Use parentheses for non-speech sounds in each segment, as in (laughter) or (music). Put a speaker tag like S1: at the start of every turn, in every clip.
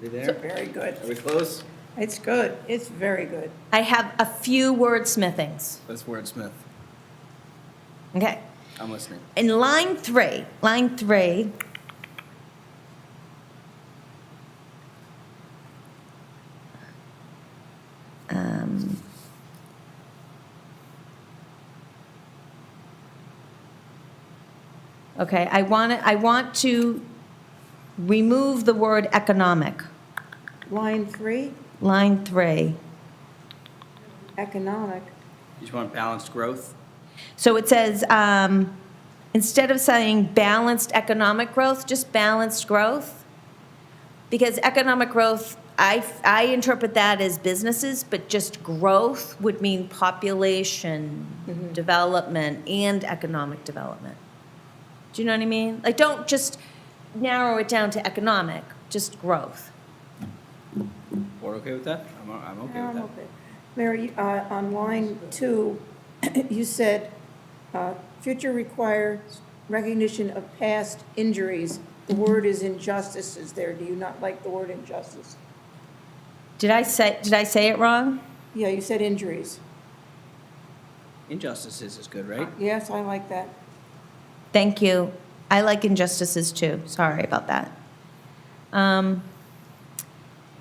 S1: We there?
S2: Very good.
S1: Are we close?
S2: It's good. It's very good.
S3: I have a few wordsmithings.
S1: Let's wordsmith.
S3: Okay.
S1: I'm listening.
S3: In line three, line three. Um, Okay, I want, I want to remove the word economic,
S2: Line three,
S3: line three.
S2: economic.
S1: You just want balanced growth?
S3: So it says, um, instead of saying balanced economic growth, just balanced growth? Because economic growth, I, I interpret that as businesses, but just growth would mean population development and economic development. Do you know what I mean? Like, don't just narrow it down to economic, just growth.
S1: Board okay with that? I'm, I'm okay with
S2: Um,
S1: that.
S2: okay. Mary, uh, on line two, (clears throat) you said, uh, future requires recognition of past injuries. The word is injustices there. Do you not like the word injustice?
S3: Did I say, did I say it wrong?
S2: Yeah, you said injuries.
S1: Injustices is good, right?
S2: Yes, I like that.
S3: Thank you. I like injustices too. Sorry about that. Um,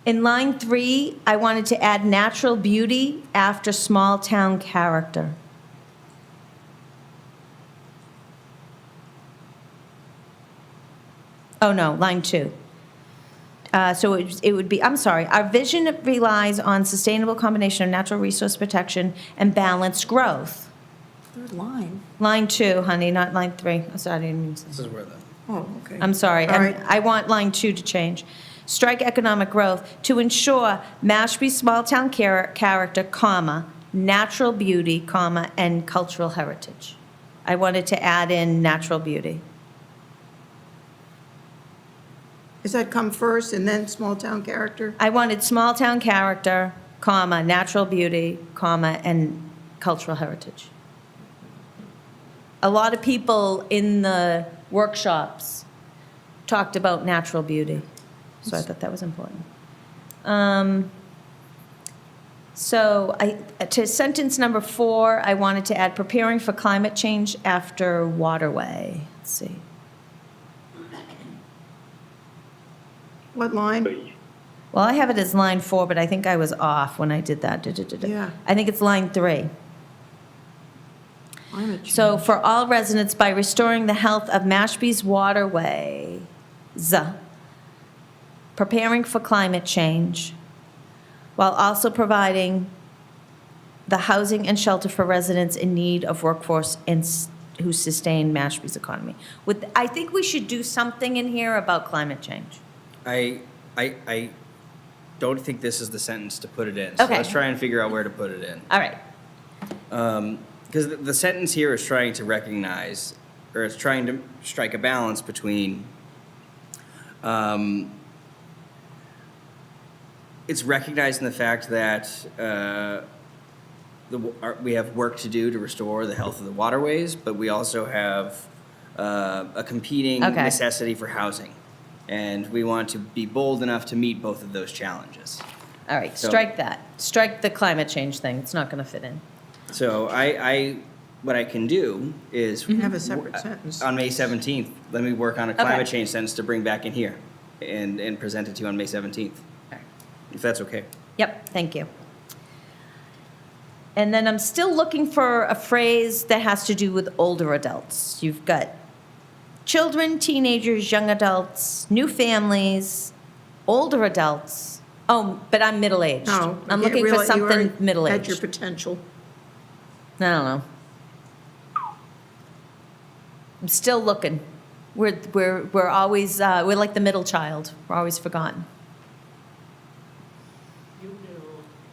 S3: in line three, I wanted to add natural beauty after small town character. Oh no, line two. Uh, so it, it would be, I'm sorry, our vision relies on sustainable combination of natural resource protection and balanced growth.
S2: Third line.
S3: Line two, honey, not line three. I'm sorry, I didn't mean to say.
S1: This is where the,
S2: Oh, okay.
S3: I'm sorry.
S2: All
S3: I'm-
S2: right.
S3: I want line two to change. Strike economic growth to ensure Mashpee's small-town char- character, comma, natural beauty, comma, and cultural heritage. I wanted to add in natural beauty.
S2: Does that come first and then small-town character?
S3: I wanted small-town character, comma, natural beauty, comma, and cultural heritage. A lot of people in the workshops talked about natural beauty, so I thought that was important. Um, So I, to sentence number four, I wanted to add preparing for climate change after waterway. Let's see.
S2: What line?
S3: Well, I have it as line four, but I think I was off when I did that. Duh, duh, duh, duh.
S2: Yeah.
S3: I think it's line three. So for all residents, by restoring the health of Mashpee's waterways, preparing for climate change, while also providing the housing and shelter for residents in need of workforce and s- who sustain Mashpee's economy. With, I think we should do something in here about climate change.
S1: I, I, I don't think this is the sentence to put it in. So
S3: Okay.
S1: Let's try and figure out where to put it in.
S3: All right.
S1: Because the, the sentence here is trying to recognize, or it's trying to strike a balance between, um, it's recognizing the fact that uh, the, w- our, we have work to do to restore the health of the waterways, but we also have uh, a competing
S3: Okay.
S1: necessity for housing. And we want to be bold enough to meet both of those challenges.
S3: All right,
S1: So-
S3: strike that. Strike the climate change thing. It's not going to fit in.
S1: So I, I, what I can do is.
S2: Have a separate
S1: w-
S2: sentence.
S1: On May seventeenth, let me work on a climate change sentence to bring back in here and, and present it to you on May seventeenth, if that's okay.
S3: Yep, thank you. And then I'm still looking for a phrase that has to do with older adults. You've got children, teenagers, young adults, new families, older adults. Oh, but I'm middle aged.
S2: No.
S3: I'm
S2: you
S3: looking for
S2: realize you already
S3: something middle
S2: Had your
S3: aged.
S2: potential.
S3: I don't know. I'm still looking. We're, we're, we're always, uh, we're like the middle child. We're always forgotten.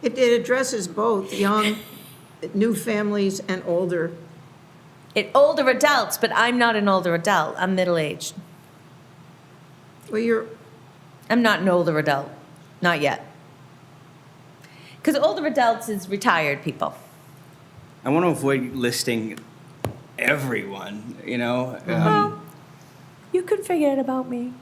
S2: It, it addresses both young, new families and older.
S3: It older adults, but I'm not an older adult. I'm middle aged.
S2: Well, you're,
S3: I'm not an older adult, not yet. Because older adults is retired people.
S1: I want to avoid listing everyone, you know? um,
S3: You could forget about me.